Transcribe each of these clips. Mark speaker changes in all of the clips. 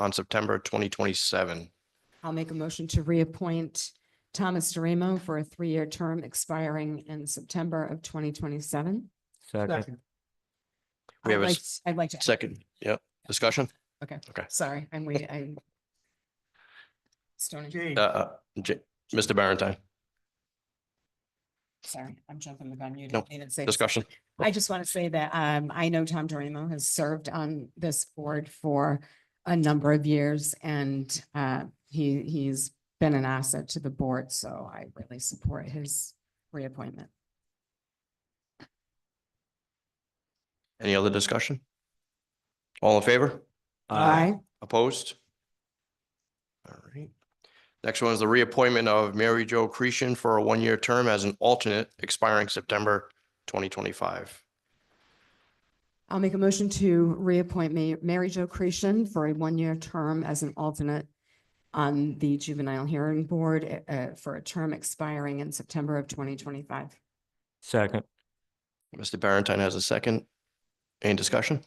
Speaker 1: on September twenty twenty-seven.
Speaker 2: I'll make a motion to reappoint Thomas DeRemo for a three-year term expiring in September of twenty twenty-seven.
Speaker 3: Second.
Speaker 1: We have a s-
Speaker 2: I'd like to.
Speaker 1: Second, yep, discussion?
Speaker 2: Sorry, I'm waiting, I'm. Stony,
Speaker 3: Jane,
Speaker 1: Uh, uh, J- Mr. Barentine,
Speaker 2: sorry, I'm jumping the gun. You
Speaker 1: No,
Speaker 2: didn't even say.
Speaker 1: discussion?
Speaker 2: I just want to say that um, I know Tom Dorimo has served on this board for a number of years and uh, he, he's been an asset to the board, so I really support his reappointment.
Speaker 1: Any other discussion? All in favor? Opposed? All right. Next one is the reappointment of Mary Jo Creason for a one-year term as an alternate expiring September twenty twenty-five.
Speaker 2: I'll make a motion to reappoint Ma- Mary Jo Creason for a one-year term as an alternate on the Juvenile Hearing Board uh, for a term expiring in September of twenty twenty-five.
Speaker 3: Second.
Speaker 1: Mr. Barentine has a second. Any discussion?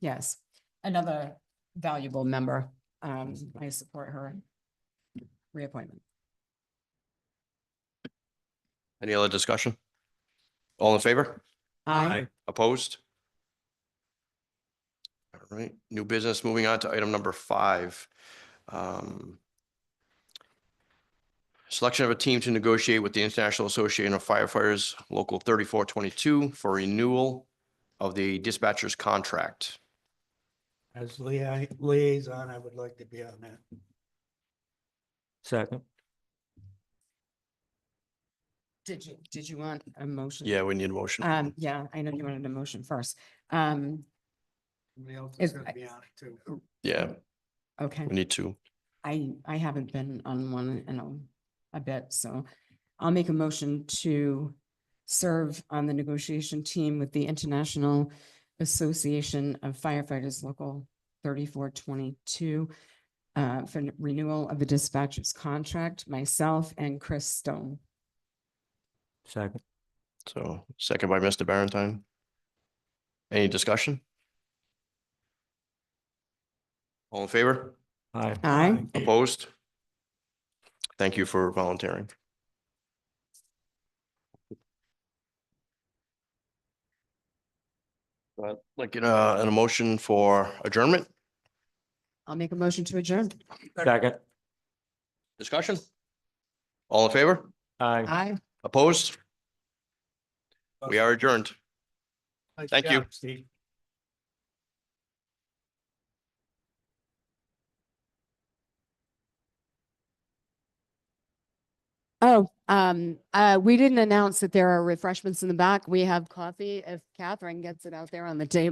Speaker 2: Yes, another valuable member. Um, I support her reappointment.
Speaker 1: Any other discussion? All in favor?
Speaker 2: Aye.
Speaker 1: Opposed? All right, new business, moving on to item number five. Um, Selection of a team to negotiate with the International Association of Firefighters Local thirty-four twenty-two for renewal of the dispatcher's contract.
Speaker 4: As lia- liaison, I would like to be on that.
Speaker 3: Second.
Speaker 2: Did you, did you want a motion?
Speaker 1: Yeah, we need a motion.
Speaker 2: Um, yeah, I know you wanted a motion first. Um,
Speaker 4: Somebody else
Speaker 2: Is-
Speaker 4: is gonna be on it too.
Speaker 1: Yeah,
Speaker 2: okay.
Speaker 1: we need to.
Speaker 2: I, I haven't been on one in a, a bit, so I'll make a motion to serve on the negotiation team with the International Association of Firefighters Local thirty-four twenty-two uh, for renewal of the dispatcher's contract, myself and Chris Stone.
Speaker 3: Second.
Speaker 1: So second by Mr. Barentine. Any discussion? All in favor?
Speaker 3: Aye.
Speaker 2: Aye.
Speaker 1: Opposed? Thank you for volunteering. I'd Like, uh, an emotion for adjournment,
Speaker 2: I'll make a motion to adjourn.
Speaker 3: Second.
Speaker 1: discussion? All in favor?
Speaker 3: Aye.
Speaker 2: Aye.
Speaker 1: Opposed? We are adjourned.
Speaker 4: Nice
Speaker 1: thank you.
Speaker 4: job, Steve.
Speaker 2: Oh, um, uh, we didn't announce that there are refreshments in the back. We have coffee if Catherine gets it out there on the table.